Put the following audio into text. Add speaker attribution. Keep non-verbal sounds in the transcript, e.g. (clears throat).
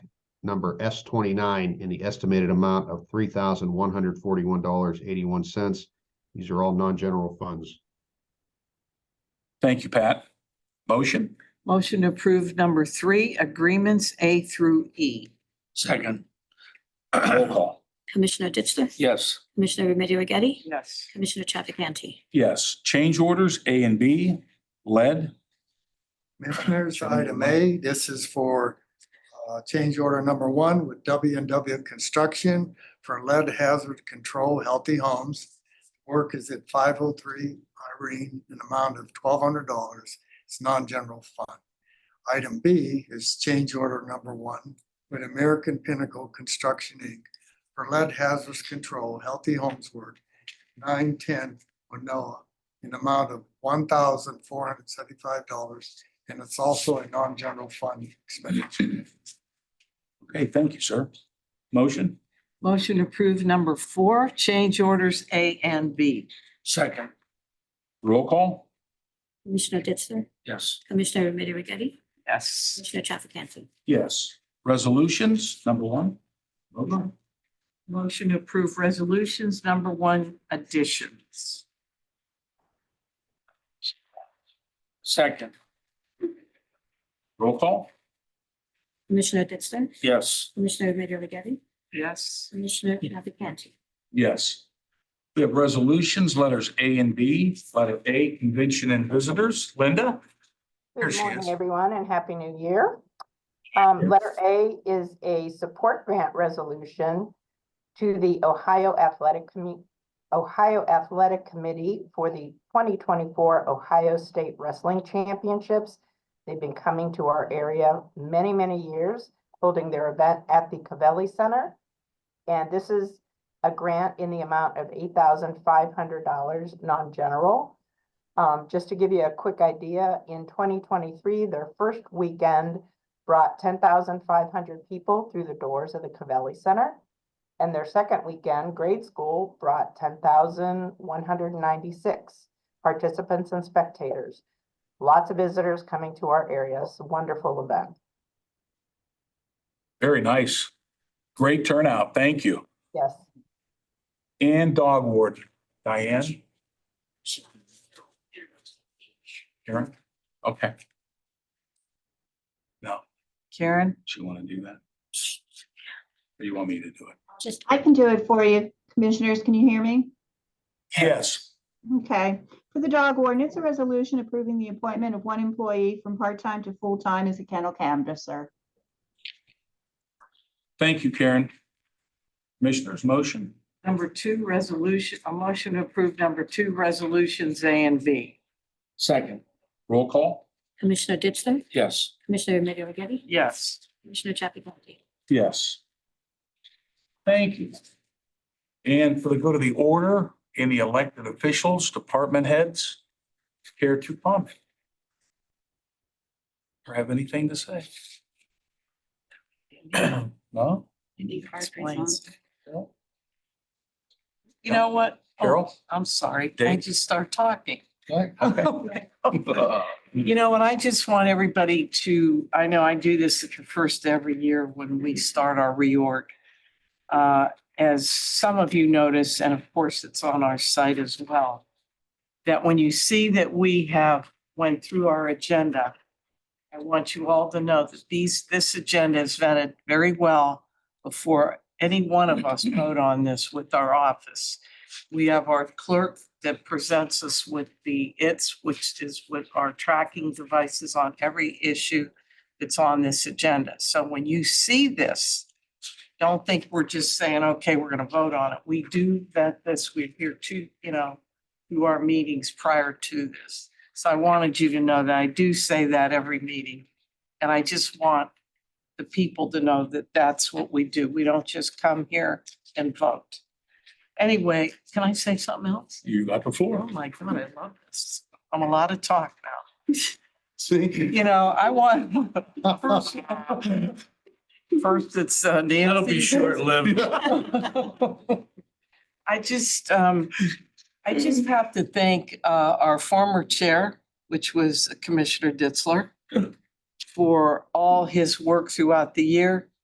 Speaker 1: number S twenty-nine in the estimated amount of three thousand one hundred forty-one dollars eighty-one cents. These are all non-general funds.
Speaker 2: Thank you, Pat. Motion?
Speaker 3: Motion to approve number three, agreements A through E.
Speaker 2: Second. Roll call.
Speaker 4: Commissioner Ditzler?
Speaker 2: (clears throat) Yes.
Speaker 4: Commissioner Remedy Agati?
Speaker 3: Yes.
Speaker 4: Commissioner Chafficanty?
Speaker 2: Yes. Change orders A and B, lead.
Speaker 5: Commissioners,
Speaker 2: Chairman.
Speaker 5: item A, this is for uh, change order number one with W and W Construction for lead hazard control healthy homes. Work is at five oh three Irene, an amount of twelve hundred dollars. It's non-general fund. Item B is change order number one with American Pinnacle Construction Inc. for lead hazards control healthy homes work nine ten Manoa an amount of one thousand four hundred seventy-five dollars and it's also a non-general fund expenditure.
Speaker 2: Okay, thank you, sir. Motion?
Speaker 3: Motion to approve number four, change orders A and B.
Speaker 2: Second. Roll call?
Speaker 4: Commissioner Ditzler?
Speaker 2: Yes.
Speaker 4: Commissioner Remedy Agati?
Speaker 3: Yes.
Speaker 4: Commissioner Chafficanty?
Speaker 2: Yes. Resolutions, number one. Motion?
Speaker 3: Motion to approve resolutions, number one, additions.
Speaker 2: Second. Roll call?
Speaker 4: Commissioner Ditzler?
Speaker 2: Yes.
Speaker 4: Commissioner Remedy Agati?
Speaker 3: Yes.
Speaker 4: Commissioner Chafficanty?
Speaker 2: Yes. We have resolutions, letters A and B. Letter A, convention and visitors. Linda? There
Speaker 6: Good
Speaker 2: she is.
Speaker 6: morning, everyone, and Happy New Year. Um, letter A is a support grant resolution to the Ohio Athletic Commi- Ohio Athletic Committee for the twenty twenty-four Ohio State Wrestling Championships. They've been coming to our area many, many years, holding their event at the Cavelli Center. And this is a grant in the amount of eight thousand five hundred dollars, non-general. Um, just to give you a quick idea, in twenty twenty-three, their first weekend brought ten thousand five hundred people through the doors of the Cavelli Center. And their second weekend, grade school brought ten thousand one hundred ninety-six participants and spectators. Lots of visitors coming to our area. It's a wonderful event.
Speaker 2: Very nice. Great turnout. Thank you.
Speaker 6: Yes.
Speaker 2: And dog ward, Diane? Karen? Okay,
Speaker 3: Karen?
Speaker 2: she want to do that? Or you want me to do it?
Speaker 7: Just, I can do it for you. Commissioners, can you hear me?
Speaker 2: Yes.
Speaker 7: Okay. For the dog warden, it's a resolution approving the appointment of one employee from part-time to full-time as a kennel canvasser.
Speaker 2: Thank you, Karen. Commissioners, motion?
Speaker 3: Number two, resolution, a motion to approve number two, resolutions A and B.
Speaker 2: Second. Roll call?
Speaker 4: Commissioner Ditzler?
Speaker 2: Yes.
Speaker 4: Commissioner Remedy Agati?
Speaker 3: Yes.
Speaker 4: Commissioner Chafficanty?
Speaker 2: Yes. Thank you. And for the good of the order, any elected officials, department heads, care to comment? Or have anything to say? (clears throat) No?
Speaker 3: Explains. You know what? Oh,
Speaker 2: Carol?
Speaker 3: I'm sorry. I
Speaker 2: Dave?
Speaker 3: just start talking.
Speaker 2: Okay.
Speaker 3: (laughs) You know, and I just want everybody to, I know I do this at the first every year when we start our reorg. Uh, As some of you notice, and of course, it's on our site as well, that when you see that we have went through our agenda, I want you all to know that these, this agenda is vetted very well before any one of
Speaker 2: (laughs)
Speaker 3: us vote on this with our office. We have our clerk that presents us with the its, which is with our tracking devices on every issue that's on this agenda. So when you see this, don't think we're just saying, okay, we're gonna vote on it. We do vet this, we're here to, you know, do our meetings prior to this. So I wanted you to know that I do say that every meeting. And I just want the people to know that that's what we do. We don't just come here and vote. Anyway, can I say something else?
Speaker 2: You got the
Speaker 3: Oh
Speaker 2: floor.
Speaker 3: my God, I love this. I'm a lot of talk now.
Speaker 5: See?
Speaker 3: You know, I want, (laughs) first it's uh, Nancy.
Speaker 2: That'll be short-lived.
Speaker 3: I just, um, I just have to thank, uh, our former chair, which was Commissioner Ditzler, for all his work throughout the year.